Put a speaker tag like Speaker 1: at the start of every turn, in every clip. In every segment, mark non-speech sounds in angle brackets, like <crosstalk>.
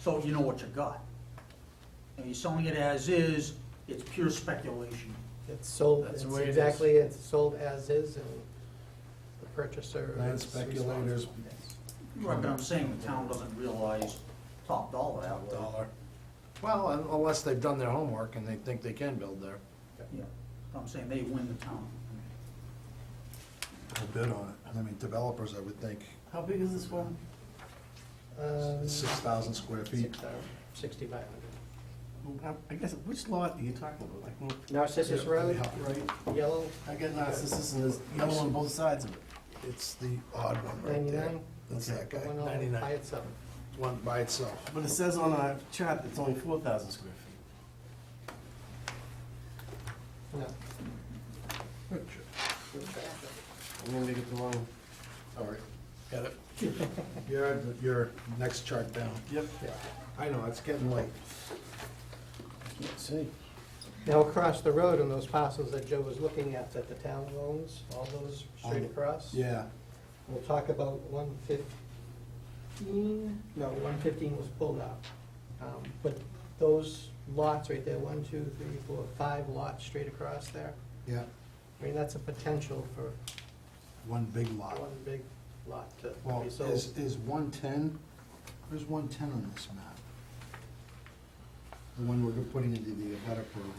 Speaker 1: so you know what you got. And you're selling it as is, it's pure speculation.
Speaker 2: It's sold,
Speaker 3: That's
Speaker 2: it's
Speaker 3: the way it is.
Speaker 2: exactly, it's sold as is and the purchaser
Speaker 3: Land
Speaker 2: is
Speaker 3: speculators.
Speaker 2: responsible. Yes.
Speaker 1: Right, but I'm saying the town doesn't realize top dollar out there.
Speaker 3: Dollar. Well, un- unless they've done their homework and they think they can build there.
Speaker 1: Yeah, I'm saying they win the town.
Speaker 4: They'll bid on it. I mean, developers, I would think,
Speaker 5: How big is this one?
Speaker 2: Um,
Speaker 4: six thousand square feet.
Speaker 2: six thousand, Sixty-five hundred.
Speaker 5: How- I guess, which lot are you talking about? Like, well,
Speaker 2: Narcissus Road,
Speaker 5: Right,
Speaker 2: yellow,
Speaker 5: I get narcissism and there's yellow on both sides of it.
Speaker 4: It's the odd one right there.
Speaker 2: ninety-nine,
Speaker 4: That's that
Speaker 2: the
Speaker 4: guy.
Speaker 2: one oh all
Speaker 3: 99.
Speaker 2: by itself.
Speaker 4: One by itself.
Speaker 5: But it says on our chart it's only four thousand square feet.
Speaker 2: No.
Speaker 3: I'm gonna get the wrong.
Speaker 4: All right, got
Speaker 2: <laughs>
Speaker 4: it. You're, on the- your next chart down.
Speaker 5: Yep.
Speaker 4: I know, it's getting late.
Speaker 3: Let's see.
Speaker 2: Now, across the road on those parcels that Joe was looking at, that the town owns, all those straight
Speaker 4: Um,
Speaker 2: across.
Speaker 4: Yeah,
Speaker 2: We'll talk about one fifteen, no, one fifteen was pulled out. Um, But those lots right there, one, two, three, four, five lots straight across there,
Speaker 4: yeah,
Speaker 2: I mean, that's a potential for
Speaker 4: one big lot.
Speaker 2: one big lot to
Speaker 4: Well,
Speaker 2: be
Speaker 4: is,
Speaker 2: sold.
Speaker 4: is one-ten, where's one-ten on this map? The one we're putting into the Avetta program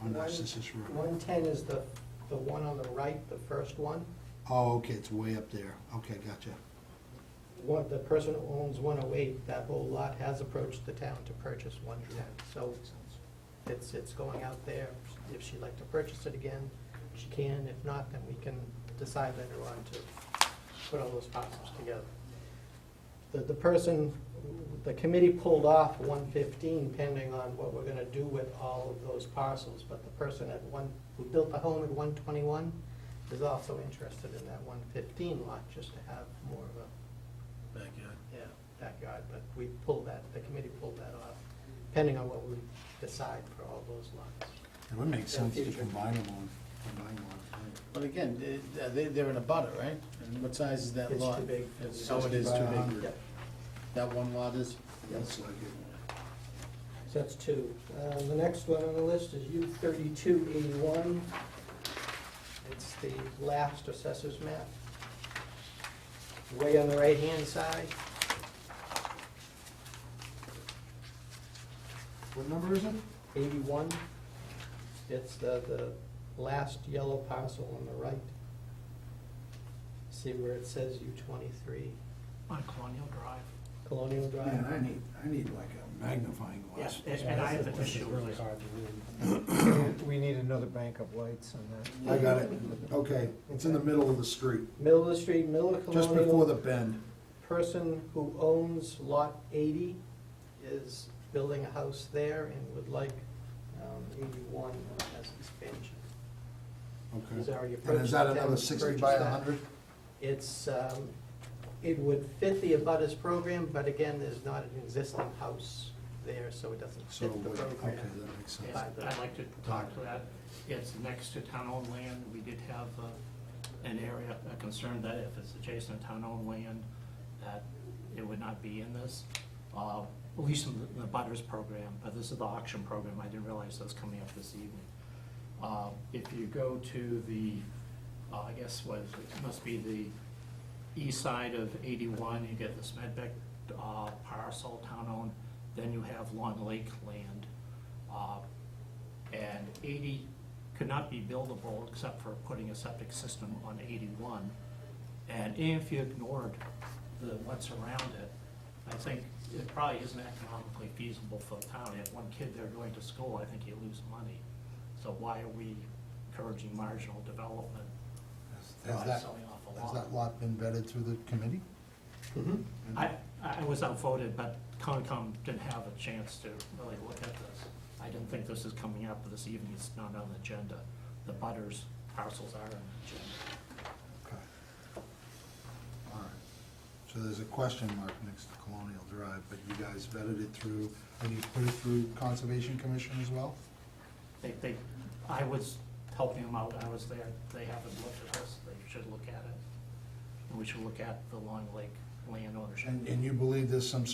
Speaker 4: on
Speaker 2: One-
Speaker 4: Narcissus Road.
Speaker 2: One ten is the, the one on the right, the first one.
Speaker 4: Oh, okay, it's way up there. Okay, gotcha.
Speaker 2: One, the person who owns one oh eight, that whole lot has approached the town to purchase one ten. So it's, it's going out there. If she'd like to purchase it again, she can. If not, then we can decide later on to put all those parcels together. The, the person, the committee pulled off one fifteen pending on what we're gonna do with all of those parcels. But the person at one, who built the home at one twenty-one is also interested in that one fifteen lot, just to have more of a
Speaker 3: Backyard.
Speaker 2: yeah, backyard, but we pulled that, the committee pulled that off, depending on what we decide for all those lots.
Speaker 4: It would make sense to
Speaker 2: future.
Speaker 4: combine them on, combine them on.
Speaker 3: But again, they- they, they're in a butter, right? And what size is that
Speaker 2: It's
Speaker 3: lot?
Speaker 2: too big.
Speaker 3: It's- Oh, it is too
Speaker 4: 60 by
Speaker 3: big.
Speaker 4: 100.
Speaker 2: Yep.
Speaker 3: That one lot is?
Speaker 4: That's like it.
Speaker 2: So that's two. Uh, The next one on the list is U thirty-two eighty-one. It's the last assessor's map. Way on the right-hand side,
Speaker 4: What number is it?
Speaker 2: eighty-one. It's the, the last yellow parcel on the right. See where it says U twenty-three,
Speaker 6: on Colonial Drive.
Speaker 2: Colonial Drive?
Speaker 4: Man, I need, I need like a magnifying
Speaker 6: Yeah,
Speaker 4: glass.
Speaker 6: and- and I have an
Speaker 7: This is
Speaker 6: issue with
Speaker 7: really
Speaker 6: this.
Speaker 7: hard to read. We need another bank of lights on that.
Speaker 4: I got it. Okay, it's in the middle of the street,
Speaker 2: Middle of the street, middle of
Speaker 4: just before the
Speaker 2: Colonial,
Speaker 4: bend.
Speaker 2: person who owns lot eighty is building a house there and would like um, eighty-one as expansion. He's
Speaker 4: Okay.
Speaker 2: already approached.
Speaker 4: And is that
Speaker 2: the town
Speaker 4: another
Speaker 2: to
Speaker 4: sixty
Speaker 2: purchase
Speaker 4: by
Speaker 2: that.
Speaker 4: hundred?
Speaker 2: It's, um, it would fit the abutters program, but again, there's not an existing house there, so it doesn't
Speaker 4: So,
Speaker 2: fit the
Speaker 4: what- okay,
Speaker 2: program.
Speaker 4: that makes sense.
Speaker 2: Yeah.
Speaker 6: I'd like to talk to that. It's next to town-owned land. We did have uh, an area, a concern that if it's adjacent to town-owned land, that it would not be in this, uh, at least in the- the butters program, but this is the auction program. I didn't realize that was coming up this evening. Uh, If you go to the, uh, I guess was, it must be the east side of 81, you get this Medbeck uh, parcel, town-owned, then you have Long Lake land. Uh, And 80 could not be buildable except for putting a septic system on 81. And if you ignored the, what's around it, I think it probably isn't economically feasible for the town. If one kid there going to school, I think you lose money. So why are we encouraging marginal development?
Speaker 4: Has
Speaker 6: by
Speaker 4: that,
Speaker 6: selling off a
Speaker 4: has
Speaker 6: lot?
Speaker 4: that lot been vetted through the committee?
Speaker 2: Mhm.
Speaker 6: I, I was outvoted, but Concom didn't have a chance to really look at this. I didn't think this is coming up this evening, it's not on the agenda. The butters parcels are on the agenda.
Speaker 4: Okay. All right. So there's a question mark next to Colonial Drive, but you guys vetted it through, and you put it through Conservation Commission as well?
Speaker 6: They, they, I was helping them out, I was there, they haven't looked at this, they should look at it. And we should look at the Long Lake land ownership.
Speaker 4: And, and you believe there's some